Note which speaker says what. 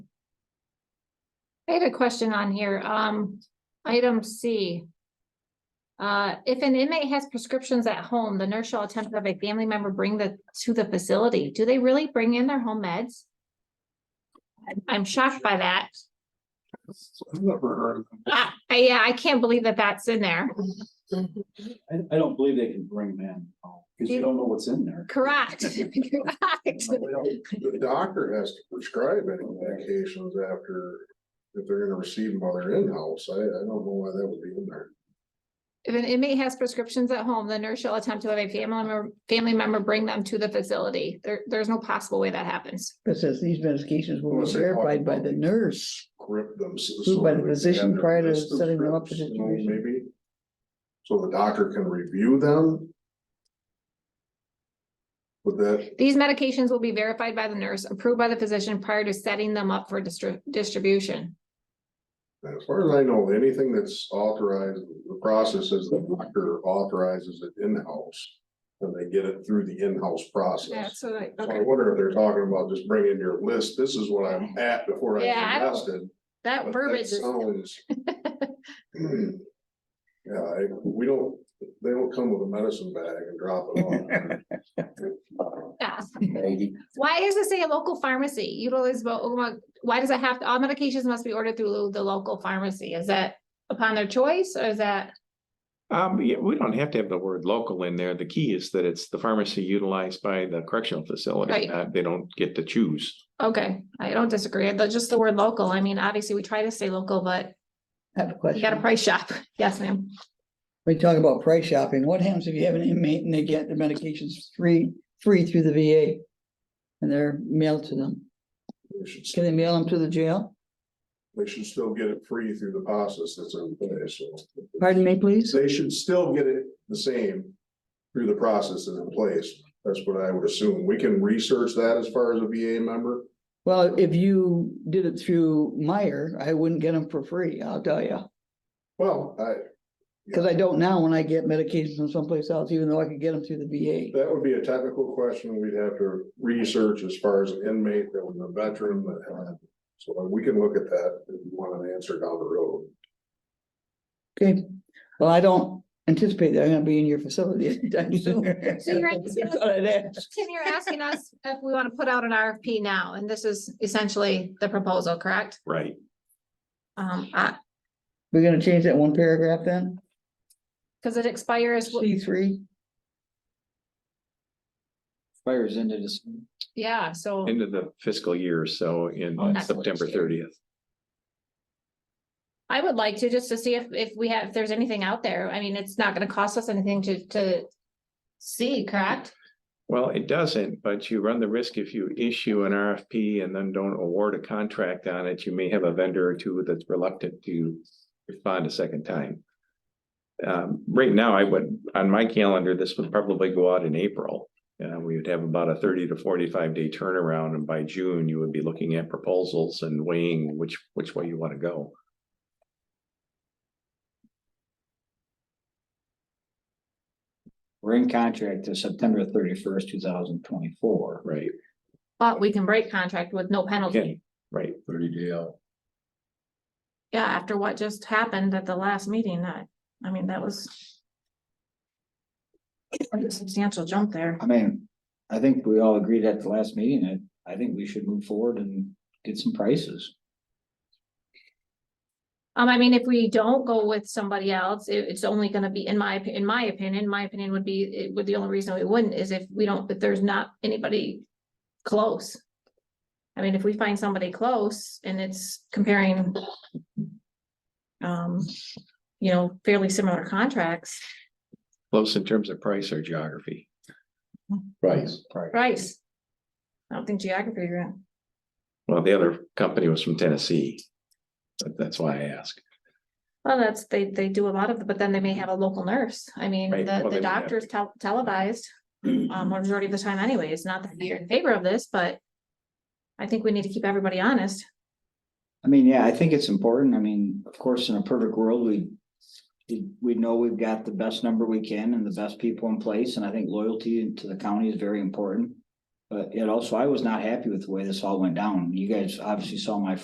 Speaker 1: I have a question on here, um, item C. Uh, if an inmate has prescriptions at home, the nurse shall attempt to have a family member bring the, to the facility. Do they really bring in their home meds? I'm- I'm shocked by that.
Speaker 2: I've never heard of them.
Speaker 1: I, I- yeah, I can't believe that that's in there.
Speaker 2: I, I don't believe they can bring them in, because you don't know what's in there.
Speaker 1: Correct. Correct.
Speaker 3: The doctor has to prescribe any medications after, if they're gonna receive them while they're in-house, I, I don't know why that would be in there.
Speaker 1: If an inmate has prescriptions at home, the nurse shall attempt to have a family member, family member bring them to the facility. There, there's no possible way that happens.
Speaker 4: It says these medications were
Speaker 3: Unless they talk
Speaker 4: verified by
Speaker 3: about
Speaker 4: the
Speaker 3: it.
Speaker 4: nurse.
Speaker 3: Script them. so-
Speaker 4: Who,
Speaker 3: so
Speaker 4: by the
Speaker 3: that they
Speaker 4: physician
Speaker 3: have their
Speaker 4: prior to
Speaker 3: list of
Speaker 4: setting them up for
Speaker 3: scripts, you know,
Speaker 4: distribution?
Speaker 3: Maybe. So the doctor can review them? Would that,
Speaker 1: These medications will be verified by the nurse, approved by the physician prior to setting them up for distri- distribution.
Speaker 3: as far as I know, anything that's authorized, the process is the doctor authorizes it in-house. And they get it through the in-house process.
Speaker 1: what I,
Speaker 3: So I wonder if they're talking about just bringing your list, this is what I'm at before I
Speaker 1: Yeah, I
Speaker 3: get
Speaker 1: don't-
Speaker 3: arrested. but
Speaker 1: That
Speaker 3: that
Speaker 1: verbiage is,
Speaker 3: sounds- Yeah, I, we don't, they don't come with a medicine bag and drop it on.
Speaker 1: yeah. Why does it say a local pharmacy? Utilize, why does it have, to all medications must be ordered through the local pharmacy? Is that upon their choice or is that?
Speaker 5: Um, yeah, we don't have to have the word local in there. The key is that it's the pharmacy utilized by the correctional
Speaker 1: Right.
Speaker 5: facility. not- They don't get to choose.
Speaker 1: Okay, I don't disagree. That's just the word local. I mean, obviously, we try to stay local, but
Speaker 4: I have a
Speaker 1: you got a
Speaker 4: question.
Speaker 1: price shop. Yes, ma'am.
Speaker 4: We talk about price shopping. What happens if you have an inmate and they get the medications free, free through the VA? And they're mailed to them.
Speaker 3: They should,
Speaker 4: Can they mail them to the jail?
Speaker 3: they should still get it free through the process that's in place, so.
Speaker 4: Pardon me, please?
Speaker 3: They should still get it the same through the process that's in place, that's what I would assume, we can research that as far as a VA member.
Speaker 4: Well, if you did it through Meyer, I wouldn't get them for free, I'll tell you.
Speaker 3: Well, I,
Speaker 4: Cause I don't now when I get medications from someplace else, even though I could get them through the VA.
Speaker 3: That would be a technical question we'd have to research as far as an inmate that was a veteran that had. So we can look at that if you want an answer down the road.
Speaker 4: Okay, well, I don't anticipate that I'm gonna be in your facility anytime soon.
Speaker 1: So you're right, this
Speaker 4: That's all I'd ask.
Speaker 1: Tim, you're asking us if we want to put out an RFP now, and this is essentially the proposal, correct?
Speaker 5: Right.
Speaker 1: Um, I,
Speaker 4: We're gonna change that one paragraph then,
Speaker 1: because it expires,
Speaker 4: C three,
Speaker 6: Fires into this.
Speaker 1: yeah, so,
Speaker 5: End of the fiscal year, so in
Speaker 6: Oh,
Speaker 1: that's what
Speaker 5: September
Speaker 1: it's doing.
Speaker 5: thirtieth.
Speaker 1: I would like to, just to see if, if we have, if there's anything out there, I mean, it's not gonna cost us anything to, to see, correct?
Speaker 5: Well, it doesn't, but you run the risk if you issue an RFP and then don't award a contract on it, you may have a vendor or two that's reluctant to respond a second time. Um, right now, I would, on my calendar, this would probably go out in April. Uh, we would have about a thirty to forty-five day turnaround, and by June, you would be looking at proposals and weighing which, which way you want to go.
Speaker 6: We're in contract to September thirty-first, two thousand twenty-four.
Speaker 5: Right,
Speaker 1: But we can break contract with no penalty,
Speaker 5: right.
Speaker 6: Thirty day out.
Speaker 1: yeah, after what just happened at the last meeting, that, I mean, that was quite a substantial jump there.
Speaker 6: I mean, I think we all agreed at the last meeting, that I think we should move forward and get some prices.
Speaker 1: Um, I mean, if we don't go with somebody else, it, it's only gonna be, in my, opi- in my opinion, my opinion would be, it would, the only reason we wouldn't is if we don't, if there's not anybody close. I mean, if we find somebody close and it's comparing um, you know, fairly similar contracts,
Speaker 5: Close in terms of price or geography.
Speaker 6: Price.
Speaker 1: price. I don't think geography, right?
Speaker 5: Well, the other company was from Tennessee. But That's why I ask.
Speaker 1: Well, that's, they, they do a lot of, but then they may have a local nurse. I mean,
Speaker 5: Right,
Speaker 1: the,
Speaker 5: well, they
Speaker 1: the
Speaker 5: would have
Speaker 1: doctor's tel- televised. Um, majority of the time anyway. It's not that you're in favor of this, but. I think we need to keep everybody honest.
Speaker 6: I mean, yeah, I think it's important. I mean, of course, in a perfect world, we. we- We know we've got the best number we can and the best people in place, and I think loyalty to the county is very important. But it also, I was not happy with the way this all went down. You guys obviously saw my